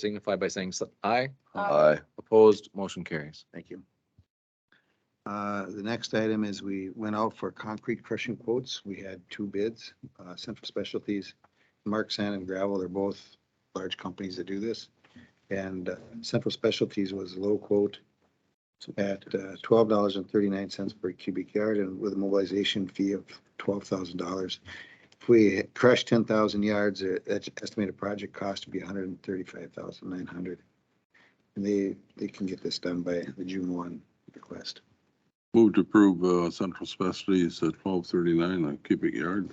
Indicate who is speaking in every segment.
Speaker 1: signify by saying s- aye.
Speaker 2: Aye.
Speaker 1: Opposed, motion carries.
Speaker 3: Thank you. Uh, The next item is we went out for concrete crushing quotes. We had two bids, uh, Central Specialties, Mark Sand and Gravel, they're both large companies that do this. And uh, Central Specialties was low quote at uh, twelve dollars and thirty-nine cents per cubic yard and with a mobilization fee of twelve thousand dollars. If we crush ten thousand yards, uh, that's estimated project cost to be $135,900. And they, they can get this done by the June one request.
Speaker 2: Move to approve uh, Central Specialties at twelve thirty-nine on cubic yard.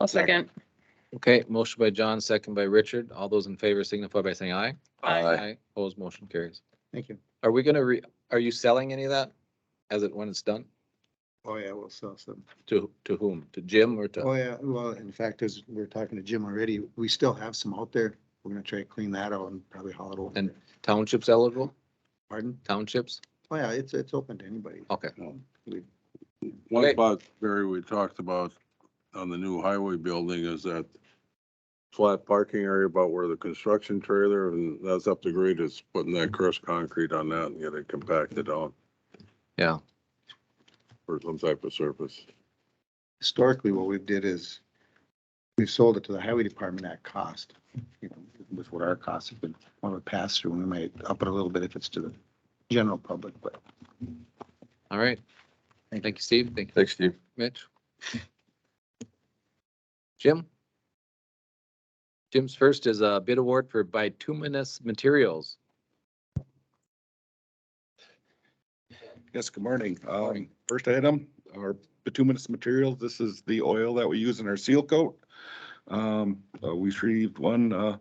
Speaker 4: I'll second.
Speaker 1: Okay, motion by John, second by Richard. All those in favor signify by saying aye.
Speaker 2: Aye.
Speaker 1: Opposed, motion carries.
Speaker 3: Thank you.
Speaker 1: Are we gonna re, are you selling any of that as it, when it's done?
Speaker 3: Oh, yeah, we'll sell some.
Speaker 1: To, to whom? To Jim or to?
Speaker 3: Oh, yeah, well, in fact, as we we're talking to Jim already, we still have some out there. We're gonna try to clean that out and probably haul it over.
Speaker 1: And- Townships eligible?
Speaker 3: Pardon?
Speaker 1: Townships?
Speaker 3: Oh, yeah, it's, it's open to anybody.
Speaker 1: Okay.
Speaker 2: One
Speaker 1: Okay.
Speaker 2: spot, Barry, we talked about on the new highway building is that flat parking area about where the construction trailer, and that's up to grade, is putting that crushed concrete on that and get it compacted out.
Speaker 1: Yeah.
Speaker 2: For some type of surface.
Speaker 3: Historically, what we've did is we've sold it to the highway department at cost, you know, with what our costs have been. When we pass through, we might up it a little bit if it's to the general public, but
Speaker 1: All right.
Speaker 3: Thank
Speaker 1: Thank you, Steve. Thank you,
Speaker 2: Thanks, Steve.
Speaker 1: Mitch. Jim? Jim's first is a bid award for bituminous materials.
Speaker 5: Yes, good morning. Um,
Speaker 1: Morning.
Speaker 5: first item, our bituminous materials. This is the oil that we use in our seal coat. Um, uh, we received one, uh,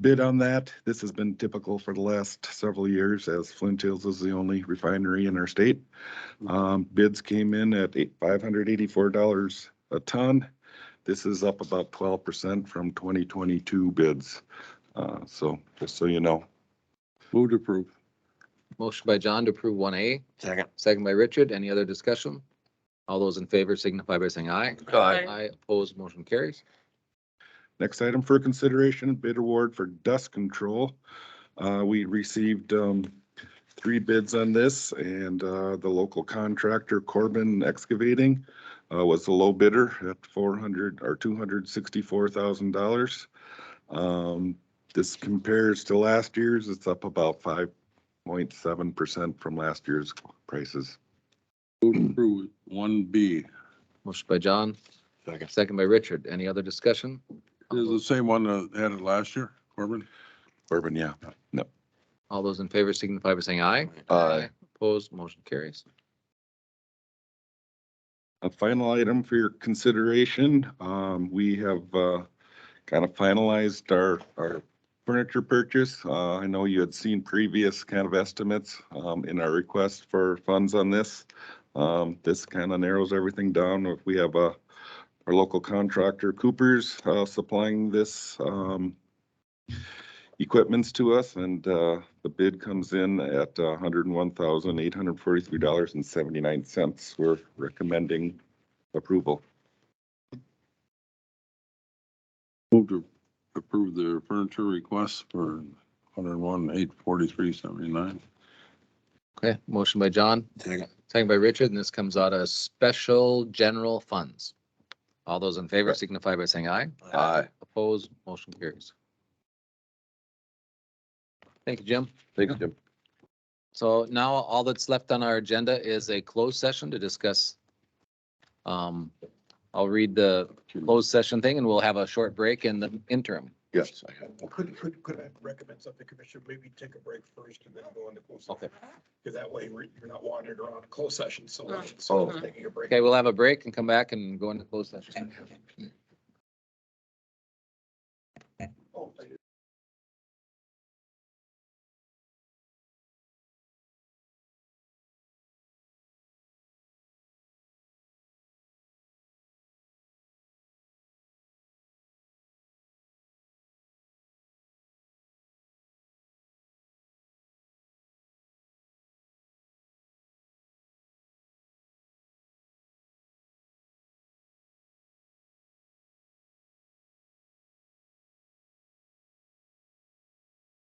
Speaker 5: bid on that. This has been typical for the last several years as Flint Hills is the only refinery in our state. Um, bids came in at eight, five hundred eighty-four dollars a ton. This is up about twelve percent from twenty twenty-two bids. Uh, so just so you know.
Speaker 2: Move to approve.
Speaker 1: Motion by John to approve one A. Second. Second by Richard. Any other discussion? All those in favor signify by saying aye.
Speaker 4: Aye.
Speaker 1: Aye, opposed, motion carries.
Speaker 5: Next item for consideration, bid award for dust control. Uh, we received, um, three bids on this and, uh, the local contractor Corbin Excavating, uh, was the low bidder at four hundred or two hundred sixty-four thousand dollars. Um, this compares to last year's. It's up about five point seven percent from last year's prices.
Speaker 2: Move to approve one B.
Speaker 1: Motion by John. Second. Second by Richard. Any other discussion?
Speaker 2: This is the same one that had it last year, Corbin?
Speaker 5: Corbin, yeah.
Speaker 1: All those in favor signify by saying aye.
Speaker 5: Aye.
Speaker 1: Opposed, motion carries.
Speaker 5: A final item for your consideration, um, we have, uh, kind of finalized our, our furniture purchase. Uh, I know you had seen previous kind of estimates, um, in our request for funds on this. Um, this kind of narrows everything down. If we have, uh, our local contractor Coopers, uh, supplying this, um, equipments to us and, uh, the bid comes in at hundred and one thousand, eight hundred forty-three dollars and seventy-nine cents. We're recommending approval.
Speaker 2: Move to approve the furniture request for hundred and one, eight forty-three, seventy-nine.
Speaker 1: Okay, motion by John.
Speaker 2: Second.
Speaker 1: Second by Richard, and this comes out of special general funds. All those in favor signify by saying aye.
Speaker 2: Aye.
Speaker 1: Opposed, motion carries. Thank you, Jim.
Speaker 2: Thanks, Jim.
Speaker 1: So now all that's left on our agenda is a closed session to discuss. Um, I'll read the closed session thing and we'll have a short break in the interim.
Speaker 2: Yes.
Speaker 6: Could, could, could I recommend something, Commissioner? Maybe take a break first and then go into closed session.
Speaker 1: Okay.
Speaker 6: Because that way we're- you're not wandering around closed session so much.
Speaker 4: Oh.
Speaker 6: Taking a break.
Speaker 1: Okay, we'll have a break and come back and go into closed session.
Speaker 6: Oh,